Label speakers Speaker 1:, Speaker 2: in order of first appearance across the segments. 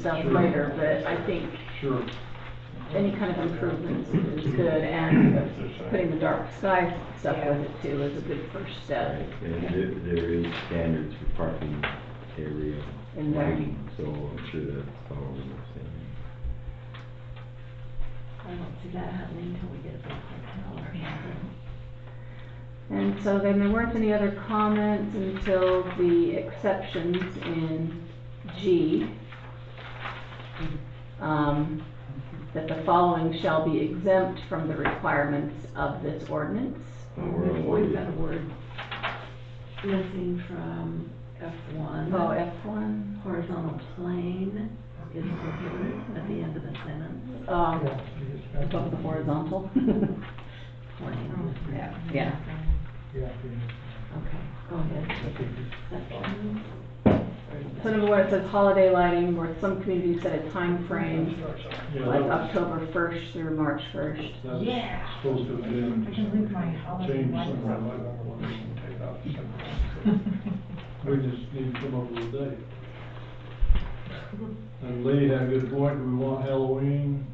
Speaker 1: stuff later, but I think
Speaker 2: Sure.
Speaker 1: any kind of improvements is good, and putting the dark sky stuff with it too is a good first step.
Speaker 3: And there, there is standards for parking area
Speaker 1: And that-
Speaker 3: lighting, so I'm sure that's all we were saying.
Speaker 4: I don't see that happening until we get a big hotel or something.
Speaker 1: And so then there weren't any other comments until the exceptions in G. Um, that the following shall be exempt from the requirements of this ordinance.
Speaker 3: But we're
Speaker 4: We've
Speaker 3: avoiding-
Speaker 4: always got a word missing from F one.
Speaker 1: Oh, F one,
Speaker 4: Horizontal plane is prohibited at the end of the sentence,
Speaker 1: um, above the horizontal.
Speaker 4: plane.
Speaker 5: Oh,
Speaker 1: Yeah, yeah.
Speaker 4: Okay, go ahead. Section.
Speaker 1: So number one, it says holiday lighting, where some communities set a time frame, like October first through March first.
Speaker 6: Yeah.
Speaker 2: Supposed to have been.
Speaker 6: I can leave my holiday
Speaker 2: changed
Speaker 6: lights
Speaker 2: somewhere,
Speaker 6: on.
Speaker 2: like, I want to take out something. We just need to come up with a date. And Lee had a good point, do we want Halloween,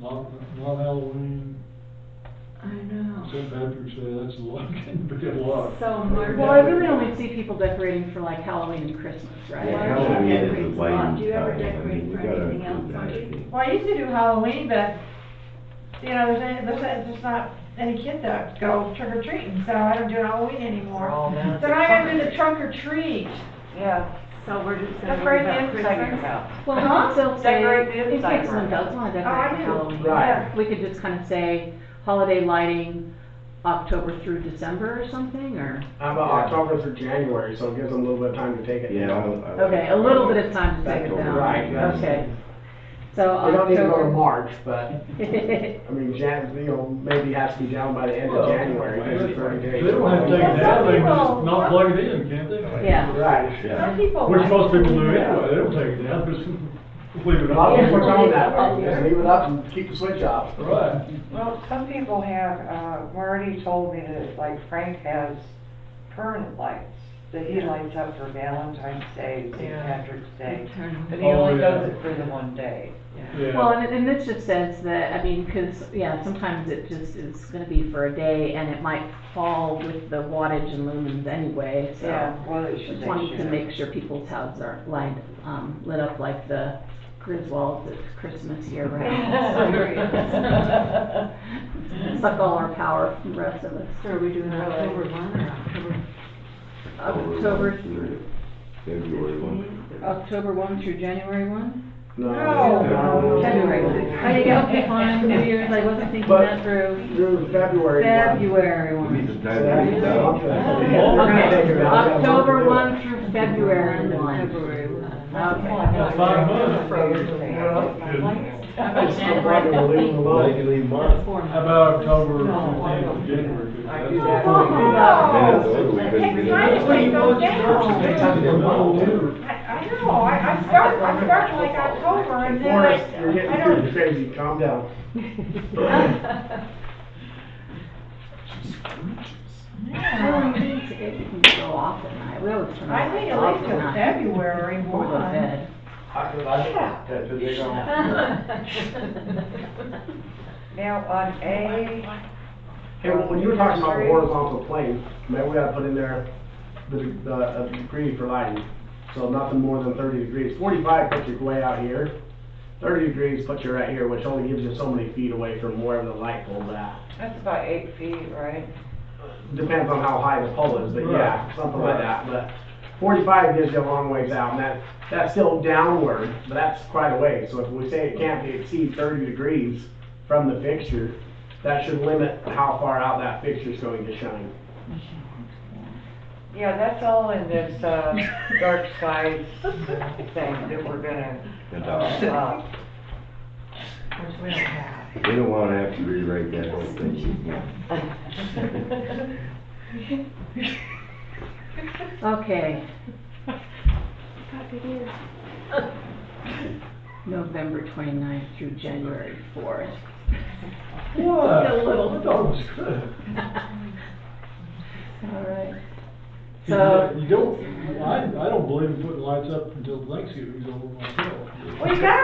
Speaker 2: not, not Halloween?
Speaker 4: I know.
Speaker 2: St. Patrick's Day, that's a lot, can be a lot.
Speaker 6: So March-
Speaker 1: Well, I really only see people decorating for like Halloween and Christmas,
Speaker 3: Yeah,
Speaker 1: right?
Speaker 4: Why
Speaker 3: Halloween
Speaker 4: do you
Speaker 3: is
Speaker 4: decorate
Speaker 3: a
Speaker 4: for lot? Do
Speaker 3: lighting
Speaker 4: you ever
Speaker 3: time, I
Speaker 4: decorate
Speaker 3: mean, we
Speaker 4: for
Speaker 3: gotta
Speaker 4: anything else,
Speaker 3: include that, I
Speaker 4: Audrey?
Speaker 3: think.
Speaker 6: Well, I used to do Halloween, but, you know, there's, there's, there's just not any kids that go trick or treating, so I don't do Halloween anymore. So now I gotta do the trunk or treat.
Speaker 5: Yeah,
Speaker 4: So we're just gonna.
Speaker 5: that's
Speaker 4: worry
Speaker 5: right,
Speaker 4: about
Speaker 5: the inside
Speaker 4: Christmas?
Speaker 5: about.
Speaker 1: Well, we
Speaker 6: Huh?
Speaker 1: could still say,
Speaker 5: Decorate the
Speaker 1: in
Speaker 5: inside.
Speaker 1: case someone does wanna
Speaker 6: Oh, I
Speaker 1: decorate for
Speaker 6: do.
Speaker 1: Halloween.
Speaker 6: Right.
Speaker 1: We could just kinda say holiday lighting, October through December or something, or,
Speaker 7: How about October through January, so it gives them a little bit of time to take it
Speaker 3: Yeah,
Speaker 7: down.
Speaker 3: I- I like-
Speaker 1: okay, a little bit of time to take it
Speaker 3: October.
Speaker 1: down.
Speaker 7: Right, that's-
Speaker 1: Okay, so
Speaker 7: They don't need to go to
Speaker 1: October.
Speaker 7: March, but, I mean, Jan, you know, maybe has to be down by the end of January, because it's thirty
Speaker 2: They
Speaker 7: days.
Speaker 2: don't have to take it down, they can just
Speaker 6: Some
Speaker 2: not
Speaker 6: people-
Speaker 2: plug it in, can't they?
Speaker 1: Yeah.
Speaker 7: Right.
Speaker 3: Yeah.
Speaker 6: Some people.
Speaker 2: Which
Speaker 6: like-
Speaker 2: most people do anyway, they don't take it down, just leave it
Speaker 7: A lot of people
Speaker 2: up.
Speaker 7: are going that way, just leave it up and keep the switch off.
Speaker 2: Right.
Speaker 5: Well, some people have, uh, Marty told me that, like Frank has permanent lights, that he lights up for Valentine's Day, St. Patrick's Day,
Speaker 4: Eternal.
Speaker 5: but he only
Speaker 2: Oh, yeah.
Speaker 5: does it for the one day.
Speaker 1: Well,
Speaker 2: Yeah,
Speaker 1: and, and this just says that, I mean, cause, yeah, sometimes it just is gonna be for a day, and it might fall with the wattage and lumens anyway, so.
Speaker 5: Yeah, well, it should,
Speaker 1: Just
Speaker 5: they
Speaker 1: wanted to
Speaker 5: should.
Speaker 1: make sure people's houses aren't lined, um, lit up like the Griswolds at Christmas year round. Suck all our power from the rest of us.
Speaker 4: So are we doing October one or October?
Speaker 1: October,
Speaker 3: one through February one.
Speaker 1: October one through January one?
Speaker 7: No, no,
Speaker 4: January.
Speaker 7: no.
Speaker 1: Oh, you got, okay, fine, New Year's, I wasn't thinking
Speaker 7: But-
Speaker 1: that through.
Speaker 7: Through February.
Speaker 1: February
Speaker 3: We need
Speaker 1: one.
Speaker 3: to dive into that.
Speaker 1: Okay, October one through February one.
Speaker 4: February one.
Speaker 1: Okay.
Speaker 2: that's five months.
Speaker 7: We're leaving alone.
Speaker 3: Legally month.
Speaker 4: Four months.
Speaker 2: How about October
Speaker 5: No, I don't
Speaker 2: fifteenth,
Speaker 5: do
Speaker 2: January? 'cause
Speaker 5: that. I
Speaker 2: that's-
Speaker 5: do that.
Speaker 2: Yeah,
Speaker 6: Oh,
Speaker 2: so
Speaker 3: we
Speaker 6: It
Speaker 3: couldn't
Speaker 6: takes
Speaker 3: do that.
Speaker 6: time to take those down.
Speaker 2: They have to go all over.
Speaker 6: I, I know, I, I start, I start like October and then I,
Speaker 7: Forrest, you're
Speaker 6: I
Speaker 7: getting
Speaker 6: don't.
Speaker 7: pretty crazy, calm down.
Speaker 1: Oh, It can go off at night, we always turn
Speaker 6: I think
Speaker 1: it
Speaker 6: at
Speaker 1: off
Speaker 6: least
Speaker 1: at
Speaker 6: till
Speaker 1: night.
Speaker 6: February
Speaker 1: Before we go to
Speaker 6: one.
Speaker 1: bed.
Speaker 7: I could, I could, that's they don't.
Speaker 5: Now, on A,
Speaker 7: Hey, well, when you were talking about the horizontal plane, maybe we gotta put in there the, de- the, a degree for lighting. So nothing more than thirty degrees. Forty-five puts you way out here. Thirty degrees puts you right here, which only gives you so many feet away from wherever the light pole's at.
Speaker 5: that's about eight feet, right?
Speaker 7: Depends on how high the pole is, but yeah, something like that, but forty-five gives you a long ways out, and that, that's still downward, but that's quite a way. So if we say it can't be exceed thirty degrees from the fixture, that should limit how far out that fixture's going to shine.
Speaker 5: Yeah, that's all in this, uh, dark skies thing that we're gonna,
Speaker 3: Adopt.
Speaker 5: uh,
Speaker 6: Which we don't have.
Speaker 3: They don't wanna have to rewrite that whole thing.
Speaker 1: Okay. November 29th through January 4th.
Speaker 2: What?
Speaker 1: A little.
Speaker 2: I thought it was good.
Speaker 1: All right. So,
Speaker 2: You don't, I, I don't believe in putting lights up until Thanksgiving's over myself.
Speaker 5: Well, you gotta